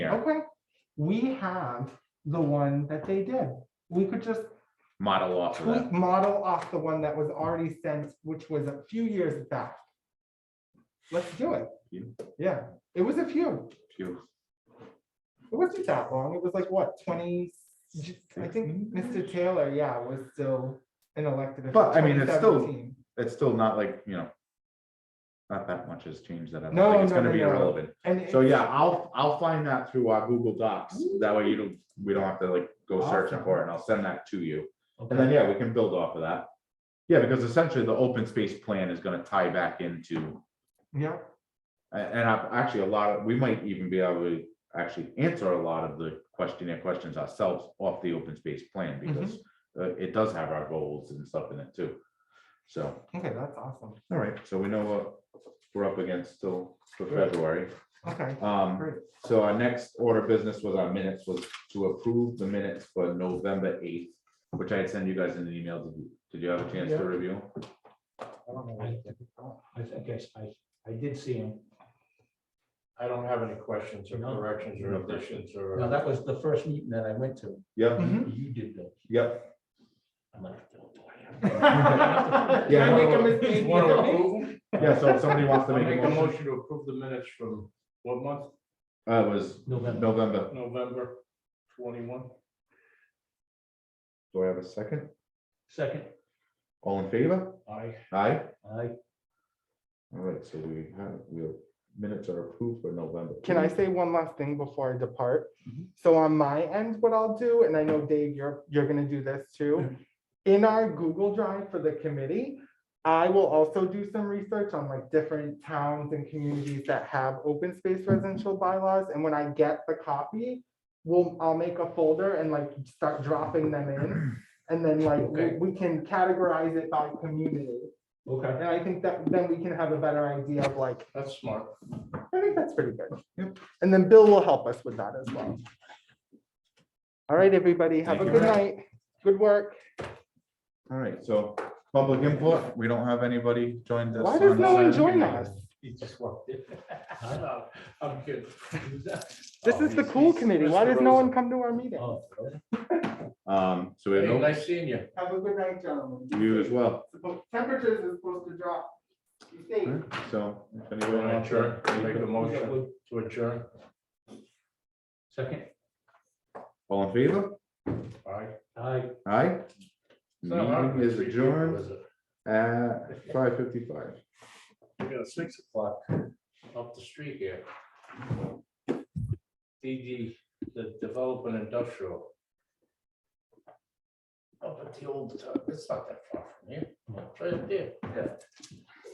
okay, we have the one that they did. We could just model off of tweak that. model off the one that was already sent, which was a few years back. Let's do it. Few. Yeah, it was a few. Phew. It wasn't that long. It was like, what, twenty? I think Mr. Taylor, yeah, was still an elected. official, But, I mean, it's still- 2017. It's still not like, you know, not that much has changed that. I No, don't think it's no, gonna no, be no. irrelevant. And. So yeah, I'll, I'll find that through our Google Docs. That way you don't, we don't have to like go searching for it and I'll send that to you. And then, Okay, yeah, we can build off of that. Yeah, because essentially the open space plan is gonna tie back into, Yeah, a- and I've actually a lot of, we might even be able to actually answer a lot of the questionnaire questions ourselves off the open space plan Mm-hmm. because uh, it does have our goals and stuff in it too. So, okay, that's awesome. all right, so we know what we're up against till for February. Okay, Um, great. so our next order of business was our minutes was to approve the minutes for November eighth, which I had sent you guys in an email. Did you- Did you have a chance Yeah. to review? I don't know what I did. I think I, s- I- I did see him. I don't have any questions or No. corrections or No additions No, or. that was the first meeting that I went to. Yep, Hmm? Mhm. You did the. yep. I'm like, oh, boy. Did I make a mistake? Want to approve? them? Yeah, so if somebody wants to I'll make a motion, to approve the minutes from what month? uh, it was November. November. November twenty-one? Do I have a second? Second, All in favor? Aye. Aye. I, All right, so we have, we have minutes are approved for November. Can I say one last thing before I depart? Mhm. So on my end, what I'll do, and I know Dave, you're, you're gonna do this too. In our Google Drive for the committee, I will also do some research on like different towns and communities that have open space residential bylaws. And when I get the copy, we'll, I'll make a folder and like start dropping them in. And then like, Okay. we we can categorize it by community. okay. And I think that then we can have a better idea of like That's smart. I think that's pretty good. And then Bill will help us with that as well. All right, everybody, have a Thank good you. night. Good work. All right, so public input, we don't have anybody joined us. Why does on no one Zoom. join us? He just walked in. Oh, I'm kidding. This is the cool committee. Why does no one come to our meeting? Oh, okay. Um, so we Hey, have nice seeing you. Have a good night, no, you as gentlemen. well. Temperatures is supposed to drop. You think? So. if You anyone wanna wants to- adjourn? Make a motion to adjourn. Second, All in favor? Aye. I. Aye. It's not hard Meeting with is three people, adjourned is it? at five fifty-five. We got a six o'clock up the street here. DD, the development industrial. Oh, uh, Hmm. Up at the old, it's not that far from here, it's right there.